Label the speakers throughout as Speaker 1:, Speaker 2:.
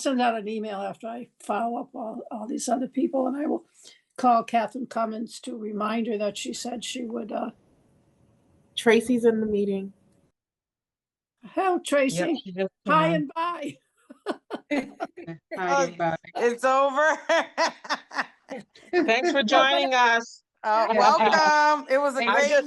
Speaker 1: send out an email after I follow up all, all these other people and I will call Catherine Cummins to remind her that she said she would, uh,
Speaker 2: Tracy's in the meeting.
Speaker 1: hello
Speaker 3: Yep,
Speaker 1: Tracy,
Speaker 3: she just came
Speaker 1: hi
Speaker 4: Uh-huh.
Speaker 3: in.
Speaker 1: and bye.
Speaker 3: Hi, everybody.
Speaker 5: Uh, It's over.
Speaker 6: Thanks for joining us.
Speaker 5: Uh,
Speaker 6: Yeah.
Speaker 5: Welcome. It was a
Speaker 6: I
Speaker 5: great
Speaker 6: just, I just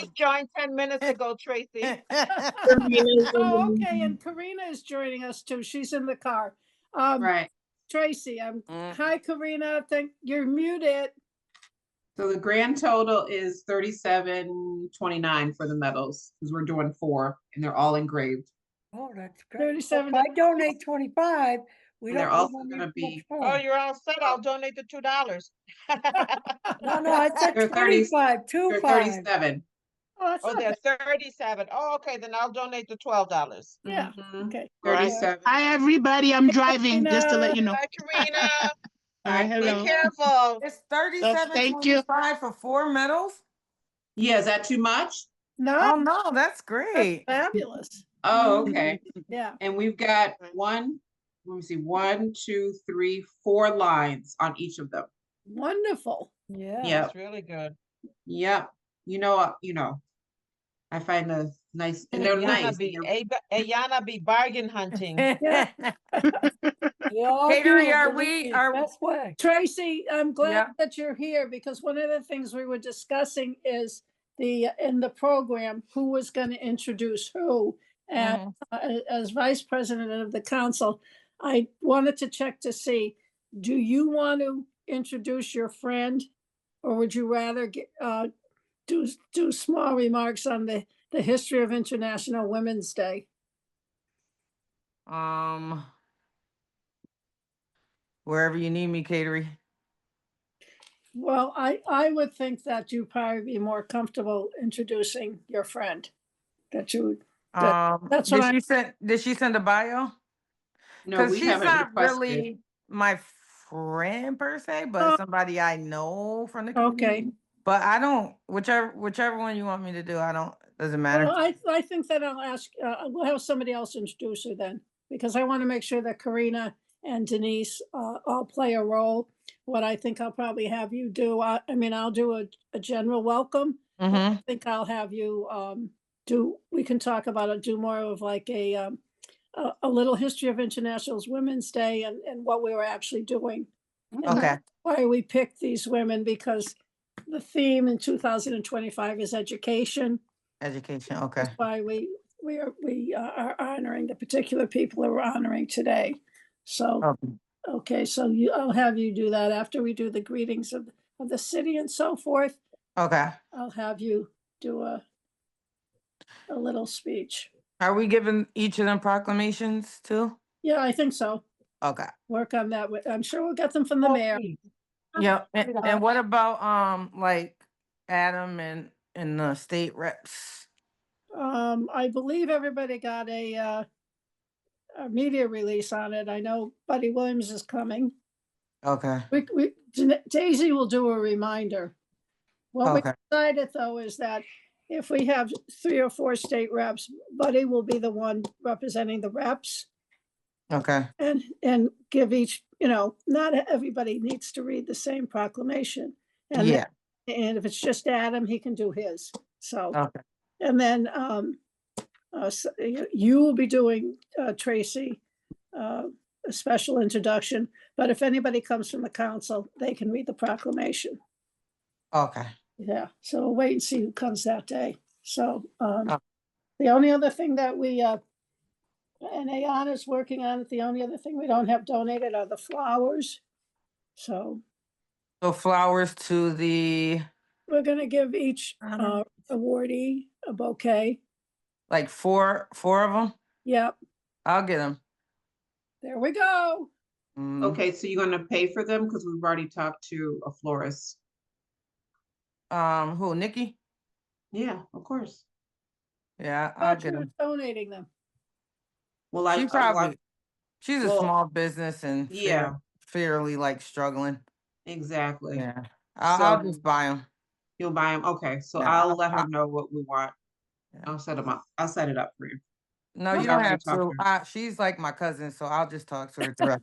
Speaker 5: meeting.
Speaker 6: joined ten minutes ago, Tracy.
Speaker 1: Oh, okay, and Karina is joining us too. She's in the car. Um,
Speaker 3: Right,
Speaker 1: Tracy, I'm,
Speaker 5: Mm.
Speaker 1: hi Karina, thank, you're muted.
Speaker 3: so the grand total is thirty-seven twenty-nine for the medals, because we're doing four, and they're all engraved.
Speaker 7: Oh, that's great. Well,
Speaker 1: 37
Speaker 7: If I donate twenty-five, we
Speaker 3: And they're
Speaker 7: don't.
Speaker 3: also
Speaker 7: need
Speaker 3: gonna
Speaker 7: much
Speaker 3: be-
Speaker 7: more.
Speaker 6: Oh, you're all set. I'll donate the two dollars.
Speaker 7: No, no, I
Speaker 3: They're
Speaker 7: said
Speaker 3: 30
Speaker 7: twenty-five, two
Speaker 3: They're
Speaker 7: five.
Speaker 3: thirty-seven.
Speaker 1: Oh, that's
Speaker 6: Oh,
Speaker 1: not
Speaker 6: they're
Speaker 1: bad.
Speaker 6: thirty-seven. Oh, okay, then I'll donate the twelve dollars.
Speaker 1: Yeah,
Speaker 3: Mhm,
Speaker 1: okay.
Speaker 3: Thirty-seven.
Speaker 4: Hi, everybody. I'm driving, just to let you know.
Speaker 6: Bye, Karina.
Speaker 4: Hi,
Speaker 6: Be
Speaker 4: hello.
Speaker 6: careful.
Speaker 5: It's thirty-seven
Speaker 4: thank you.
Speaker 5: twenty-five for four medals?
Speaker 3: Yeah, is that too much?
Speaker 5: Oh,
Speaker 1: No,
Speaker 5: no, that's
Speaker 1: that's
Speaker 5: great.
Speaker 1: fabulous,
Speaker 3: Oh, okay,
Speaker 1: yeah.
Speaker 3: and we've got one, let me see, one, two, three, four lines on each of them.
Speaker 1: Wonderful.
Speaker 7: Yeah.
Speaker 3: Yep,
Speaker 6: That's really good.
Speaker 3: yep, you know, uh, you know. I find the nice, and they're nice.
Speaker 6: Ayana be,
Speaker 3: and they're-
Speaker 6: Ab- Ayana be bargain hunting.
Speaker 7: We all
Speaker 5: Catering,
Speaker 7: do it,
Speaker 5: are
Speaker 7: believe
Speaker 5: we-
Speaker 7: me,
Speaker 5: are-
Speaker 7: Best way.
Speaker 1: Tracy, I'm glad
Speaker 5: Yeah.
Speaker 1: that you're here because one of the things we were discussing is the, in the program, who was going to introduce who. And uh, as vice president of the council, I wanted to check to see, do you want to introduce your friend? Or would you rather get, uh, do, do small remarks on the, the history of International Women's Day?
Speaker 5: Um, wherever you need me, Catering.
Speaker 1: Well, I, I would think that you'd probably be more comfortable introducing your friend. That you would That-
Speaker 5: Um, did
Speaker 1: that's what I-
Speaker 5: she send, did she send a bio?
Speaker 3: No,
Speaker 5: Because
Speaker 3: we
Speaker 5: she's
Speaker 3: haven't
Speaker 5: not
Speaker 3: requested.
Speaker 5: really my friend per se,
Speaker 1: Oh.
Speaker 7: Oh.
Speaker 5: but somebody I know from the
Speaker 1: Okay.
Speaker 5: community. But I don't, whichever, whichever one you want me to do, I don't, doesn't matter.
Speaker 1: Well, I, I think that I'll ask, uh, we'll have somebody else introduce her then, because I want to make sure that Karina and Denise, uh, all play a role. What I think I'll probably have you do, I, I mean, I'll do a, a general welcome.
Speaker 5: Mhm.
Speaker 1: I think I'll have you, um, do, we can talk about it, do more of like a, um, a, a little history of International's Women's Day and, and what we were actually doing. and
Speaker 5: Okay,
Speaker 1: Why we picked these women, because the theme in two thousand and twenty-five is education.
Speaker 5: education, okay.
Speaker 1: That's why we, we are, we uh, are honoring the particular people that we're honoring today. So,
Speaker 5: Okay.
Speaker 1: okay, so you, I'll have you do that after we do the greetings of, of the city and so forth.
Speaker 5: Okay,
Speaker 1: I'll have you do a, a little speech.
Speaker 5: are we giving each of them proclamations too?
Speaker 1: Yeah, I think so.
Speaker 5: Okay,
Speaker 1: Work on that. with- I'm sure we'll get them from the
Speaker 6: Oh,
Speaker 1: mayor.
Speaker 6: please.
Speaker 3: Uh,
Speaker 5: yeah, and, and what about, um, like Adam and, and the state reps?
Speaker 1: Um, I believe everybody got a, uh, a media release on it. I know Buddy Williams is coming.
Speaker 5: Okay,
Speaker 1: We, we, Dana- Daisy will do a reminder. What we
Speaker 5: Okay.
Speaker 1: decided though is that if we have three or four state reps, Buddy will be the one representing the reps
Speaker 5: okay,
Speaker 1: and, and give each, you know, not everybody needs to read the same proclamation. And,
Speaker 5: yeah,
Speaker 1: then- and if it's just Adam, he can do his. So,
Speaker 5: okay,
Speaker 1: and then, um, uh, s- you- you will be doing, uh, Tracy, uh, a special introduction. But if anybody comes from the council, they can read the proclamation.
Speaker 5: okay.
Speaker 1: Yeah, so we'll wait and see who comes that day. So um,
Speaker 5: Oh.
Speaker 1: the only other thing that we, uh, and Ayan is working on it, the only other thing we don't have donated are the flowers. So
Speaker 5: So flowers to the,
Speaker 1: we're gonna give each
Speaker 5: Um,
Speaker 1: uh, awardee a bouquet.
Speaker 5: like four, four of them?
Speaker 1: Yep,
Speaker 5: I'll get Mm, them.
Speaker 1: there we go.
Speaker 3: Okay, so you're gonna pay for them, because we've already talked to a florist.
Speaker 5: Um, who, Nikki?
Speaker 3: Yeah, of course.
Speaker 5: Yeah, I'll
Speaker 1: Thought
Speaker 5: get
Speaker 1: you were
Speaker 5: them.
Speaker 1: Donating them.
Speaker 3: Well, I,
Speaker 5: She
Speaker 3: I- well, I-
Speaker 5: probably, she's a
Speaker 3: well,
Speaker 5: small business and
Speaker 3: yeah.
Speaker 5: fair- fairly like struggling.
Speaker 3: exactly.
Speaker 5: Yeah, I'll, I'll
Speaker 3: So-
Speaker 5: just buy them.
Speaker 3: You'll buy them, okay, so
Speaker 5: Yeah,
Speaker 3: I'll
Speaker 5: I'll-
Speaker 3: let her
Speaker 5: I'll-
Speaker 3: know what we want.
Speaker 5: Yeah.
Speaker 3: I'll set them up, I'll set it up for you.
Speaker 5: No,
Speaker 3: I'll
Speaker 5: you don't
Speaker 3: have
Speaker 5: have
Speaker 3: to talk
Speaker 5: to.
Speaker 3: to
Speaker 5: I, she's like my cousin, so I'll just talk to her throughout